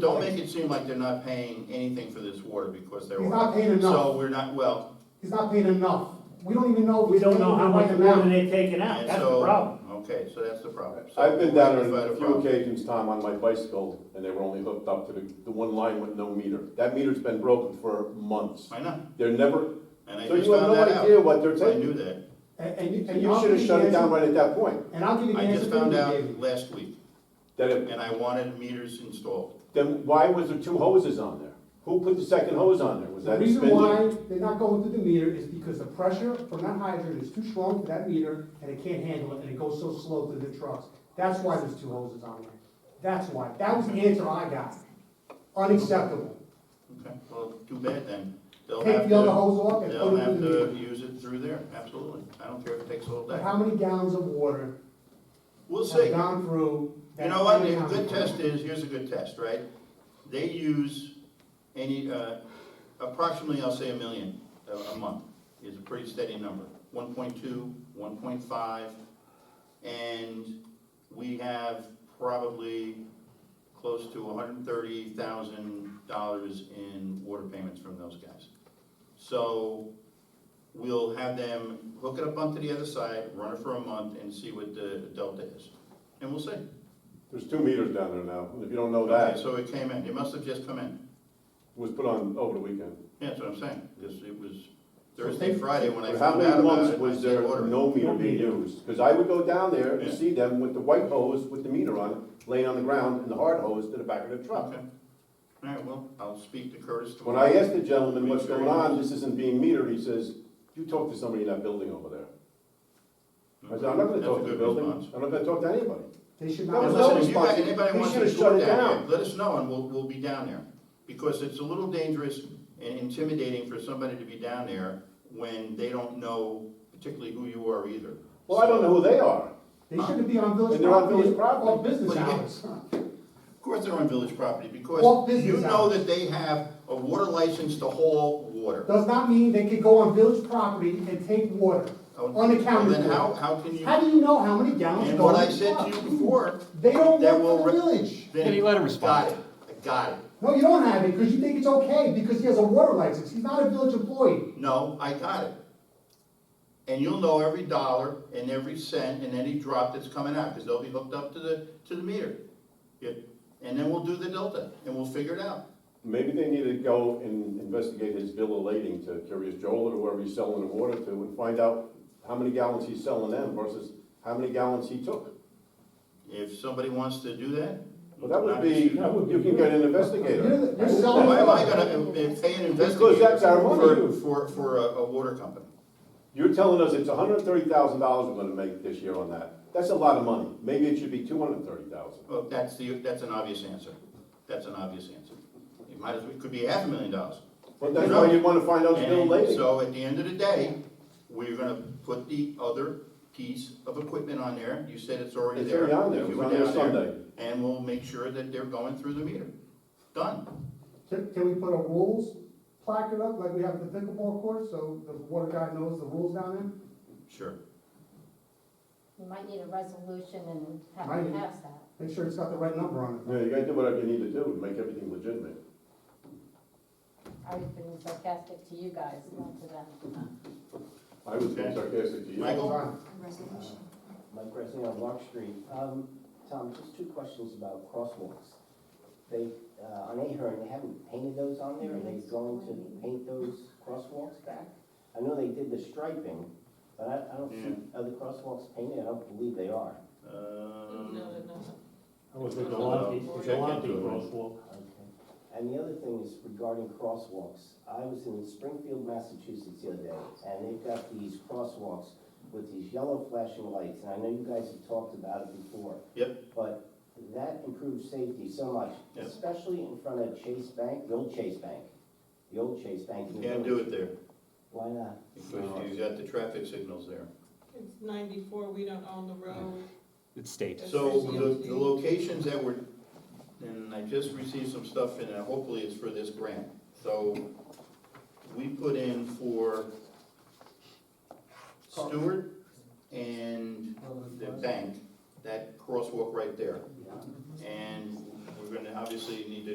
don't make it seem like they're not paying anything for this water because they're. He's not paying So enough, we're not, well, he's not paying enough. We don't even know. if We he's don't know paying how right much now. water they're taking out, and that's the problem. so, okay, so that's the problem. So I've been down there we'll on rectify a the few problem. occasions, Tom, on my bicycle, and they were only hooked up to the, the one line with no meter. That meter's been broken for months. I know, They're never, and I so just you have found no that idea out. what they're I taking. knew that. And, and you, And and you I'll should give have you shut the it down answer- right at that point. And I'll give you the I answer just that found you out gave me. last week, That it, and I wanted meters installed. then why was there two hoses on there? Who put the second hose on there? Was The that reason Spindler? why they're not going through the meter is because the pressure from that hydrant is too strong for that meter, and it can't handle it, and it goes so slow through the trucks. That's why there's two hoses on there. That's why. That was the answer I got. Unacceptable. Okay, well, too bad then. They'll have Take the other to, hose off and they'll put it have through the meter. to use it through there, absolutely. I don't care if it takes a whole But day. how many gallons of water We'll see. have gone through? You know what, a good test is, here's a good test, right? They use any, uh, approximately, I'll say a million a, a month is a pretty steady number. 1.2, 1.5, and we have probably close to hundred and thirty thousand dollars in water payments from those guys. So we'll have them hook it up onto the other side, run it for a month and see what the delta is. And we'll see. There's two meters down there now. If you don't know Oh, that, Okay, it so it came in, it must have just come in, was put on over the weekend. Yeah, that's what I'm saying, because it was So Thursday, they- Friday when I But how found out many about months it, I was there said, order it. no meter being used? Because I would go down there Yeah. and see them with the white hose with the meter on it, laying on the ground, and the hard hose to the back of the truck. Okay, all right, well, I'll speak to Curtis When tomorrow. I asked the gentleman what's going on, this isn't being metered, he says, you talk to somebody in that building over there. I said, I'm not gonna That's a talk to the good building, response. I'm not gonna talk to anybody. They should That not. And was have- no listen, if you guys, response. anybody We wants to should've tour shut it down down. here, let us know and we'll, we'll be down there. Because it's a little dangerous and intimidating for somebody to be down there when they don't know particularly who you are either. Well, I don't know who they are. They shouldn't be on village And they're on property, village property. off business But you- hours. Of course they're on village property, Well, because business you know hours. that they have a water license to haul water. Does not mean they could go on village property and take water unaccounted Oh, Then how, for. how can you, How do you know how many gallons and go what in I the said to truck? you before, They don't that work will for re- the village. then. Can you let him respond? Got it, I got it. No, you don't have it, because you think it's okay, because he has a water license. He's not a village employee. No, I got it. And you'll know every dollar and every cent and any drop that's coming out, because they'll be hooked up to the, to the meter. Yeah. And then we'll do the delta, and we'll figure it out. Maybe they need to go and investigate his bill of lading to Curious Joel or whoever he's selling the water to and find out how many gallons he's selling them versus how many gallons he took. If somebody wants to do that. Well, that would not be, issue. you can get an You're, investigator. the- you're selling. Why am I gonna uh, pay an Because investigator that's our for, money. for, for a, a water company? You're telling us it's hundred and thirty thousand dollars we're gonna make this year on that. That's a lot of money. Maybe it should be two hundred and thirty thousand. Well, that's the, that's an obvious answer. That's an obvious answer. It might as, well it could be half a million dollars. But that's why you wanna find out his bill of And lading. so at the end of the day, we're gonna put the other piece of equipment on there. You said it's already It's there. already on there. If you It was were on there down Sunday. And we'll make sure that they're going through the meter. Done. Can, can we put a rules placard up like we have at the pickleball court, so the water guy knows the rules down there? Sure. You might need a resolution and have Might. to pass that. Make sure it's got the right number on it. Yeah, you gotta do whatever you need to do to make everything legitimate. I was being sarcastic to you guys, not to them. I was being sarcastic to you. Michael? Fine. Mike Grassi on Rock Street. Um, Tom, just two questions about crosswalks. They, uh, on Ahern, they haven't painted those on there, are they going to paint those crosswalks back? I know they did the striping, but I, I don't see, are the crosswalks painted? I don't believe they are. Um, It was a Check Galante, into it. Galante crosswalk. Okay. And the other thing is regarding crosswalks. I was in Springfield, Massachusetts the other day, and they've got these crosswalks with these yellow flashing lights, and I know you guys have talked about it before. Yep. But that improves safety so much, Yep. especially in front of Chase Bank, the old Chase Bank, the old Chase Bank. in You the can't do village. it there, Why not? because you got the traffic signals there. It's ninety-four, we don't own the road. It's state. So the, the locations that were, and I just received some stuff in, and uh, hopefully it's for this grant. So we put in for Stewart and the bank, that crosswalk right there. And we're gonna obviously need to